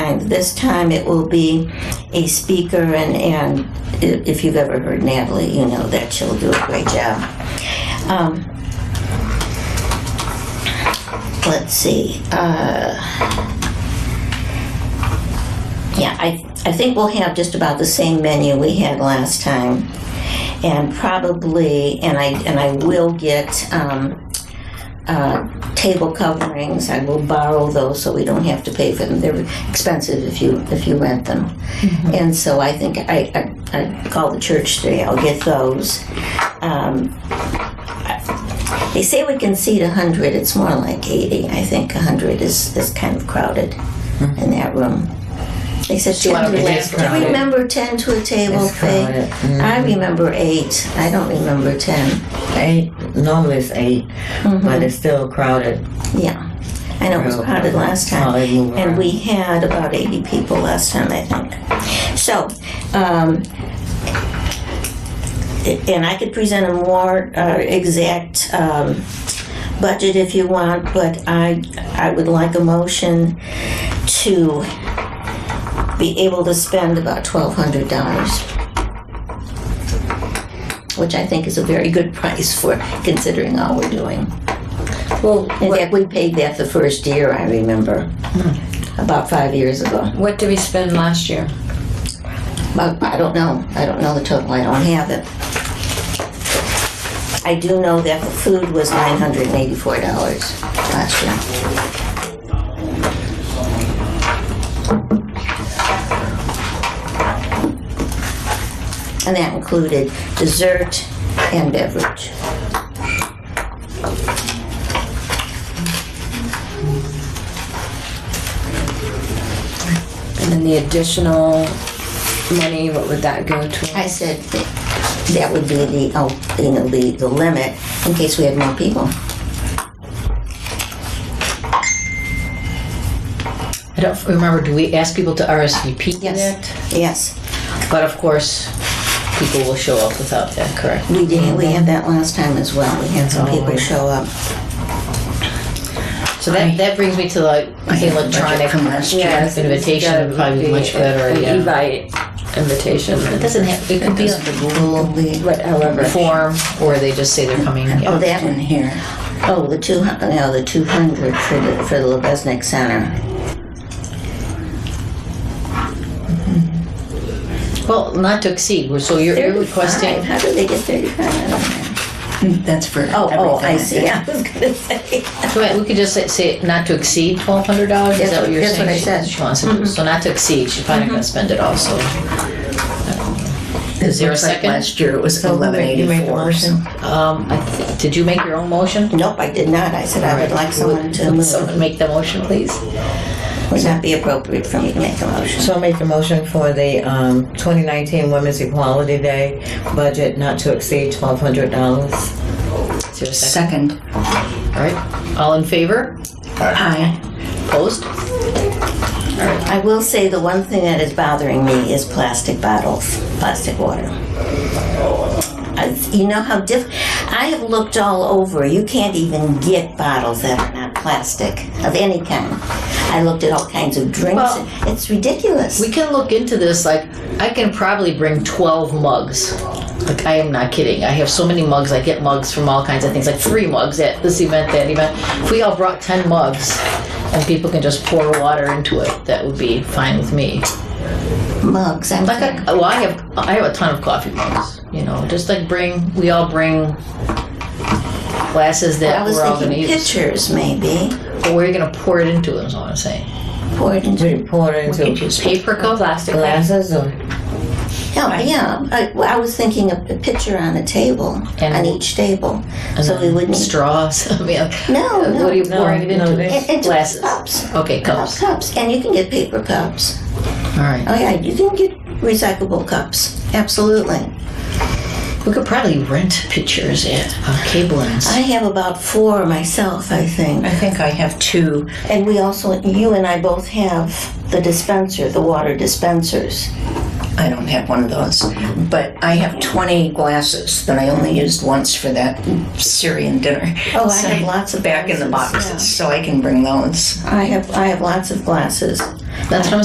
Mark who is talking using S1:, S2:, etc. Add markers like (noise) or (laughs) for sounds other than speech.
S1: times. This time it will be a speaker, and, and i- if you've ever heard Natalie, you know that she'll do a great job. Um, let's see. Uh, yeah, I, I think we'll have just about the same menu we had last time. And probably, and I, and I will get, um, uh, table coverings. I will borrow those so we don't have to pay for them. They're expensive if you, if you rent them.
S2: Mm-hmm.
S1: And so I think I, I, I called the church today. I'll get those. Um, they say we can seat 100. It's more like 80. I think 100 is, is kind of crowded
S2: Hmm.
S1: in that room. They said 10
S2: wanna
S1: to
S2: be
S1: a
S2: less
S1: table.
S2: crowded.
S1: You remember 10 to a table
S2: It's
S1: thing?
S2: crowded.
S1: I remember 8. I don't remember 10.
S2: Eight, normally it's 8
S3: Mm-hmm.
S2: but it's still crowded.
S1: Yeah. I know it was crowded last
S2: Oh,
S1: time.
S2: they move
S1: And
S2: around.
S1: we had about 80 people last time, I think. So, um, and I could present a more uh, exact um, budget if you want, but I, I would like a motion to be able to spend about $1,200, which I think is a very good price for considering all we're doing.
S4: Well,
S1: In
S4: what, Hmm.
S1: fact, we paid that the first year, I remember, about five years ago.
S4: what did we spend last year?
S1: But I don't know, I don't know the total, I don't have it. I do know that the food was nine hundred and eighty-four dollars last year. And that included dessert and beverage.
S4: And then the additional money, what would that go to?
S1: I said that that would be the, oh, you know, the, the limit in case we had more people.
S5: I don't remember, do we ask people to RSVP yet?
S1: Yes,
S5: But of course, people will show up without that, correct?
S1: we did, we had that last time as well. We had some people show up.
S5: So that, that brings me to like the electronic
S4: Yes,
S5: invitation would probably be much better,
S4: An
S5: yeah.
S4: invite invitation,
S5: It doesn't have, it could be like a Google
S1: The-
S4: what, however.
S5: form, or they just say they're coming.
S1: Oh,
S5: yeah.
S1: that one here. Oh, the two, hu- no, the two hundred for the, for the Lebesnick Center.
S5: Well, not to exceed, we're- so you're you're
S1: Thirty-five.
S5: requesting,
S1: How did they get thirty-five?
S3: That's for
S1: Oh, oh, I
S3: everything.
S1: see, (laughs) I was gonna say.
S5: wait, we could just say- say not to exceed twelve hundred dollars, is
S1: That's
S5: that
S1: what-
S5: what you're
S1: that's what
S5: saying?
S1: I
S5: she-
S1: said. Mm-hmm.
S5: She wants to do, so not to exceed, she's probably not gonna spend it all, so. Is there a
S3: Looks like
S5: second?
S3: Last year it was eleven
S2: You make the
S3: eighty-four.
S2: motion.
S5: Um, I thi- did you make your own motion?
S1: Nope, I did not. I said I would like someone to
S5: Would
S1: move.
S5: someone make the motion, please?
S1: Would not be appropriate for me to make a motion.
S2: So make the motion for the um, 2019 Women's Equality Day budget not to exceed $1,200.
S5: Is there a second?
S3: Second.
S5: All right, all in favor?
S3: Aye.
S5: Opposed?
S1: I will say the one thing that is bothering me is plastic bottles, plastic water. I, you know how diff. I have looked all over. You can't even get bottles that are not plastic of any kind. I looked at all kinds of drinks.
S5: Well-
S1: it's ridiculous.
S5: We can look into this, like, I can probably bring 12 mugs. Like, I am not kidding. I have so many mugs. I get mugs from all kinds of things, like three mugs at this event, that event. If we all brought 10 mugs and people can just pour water into it, that would be fine with me.
S1: Mugs. I'm
S5: Like, I, well, I have, I have a ton of coffee mugs, you know, just like bring, we all bring glasses
S1: I
S5: that
S1: was
S5: we're all gonna
S1: thinking
S5: use.
S1: pictures, maybe.
S5: But where are you gonna pour it into, is what I'm saying.
S1: Pour it into.
S2: We pour it into
S5: Paper cup?
S4: Plastic.
S2: glasses or?
S1: Yeah, yeah. I, well, I was thinking of a picture on a table,
S5: And-
S1: on each table, so we wouldn't.
S5: straws. (laughs) I mean,
S1: No, no.
S5: what are you
S2: No,
S5: pouring it
S2: no,
S5: into?
S2: they-
S1: and, and
S5: Glasses.
S1: cups.
S5: Okay, cups. All
S1: Cups, and you can get paper cups.
S5: right.
S1: Oh yeah, you can get recyclable cups. Absolutely.
S5: We could probably rent pictures at uh, Cablin's.
S1: I have about four myself, I think.
S3: I think I have two.
S1: And we also, you and I both have the dispenser, the water dispensers.
S3: I don't have one of those. But I have twenty glasses that I only used once for that Syrian dinner.
S1: Oh, I
S3: So
S1: have lots of
S3: Back in the
S1: glasses,
S3: boxes, so I can bring those.
S1: I have, I have lots of glasses.
S5: That's what I'm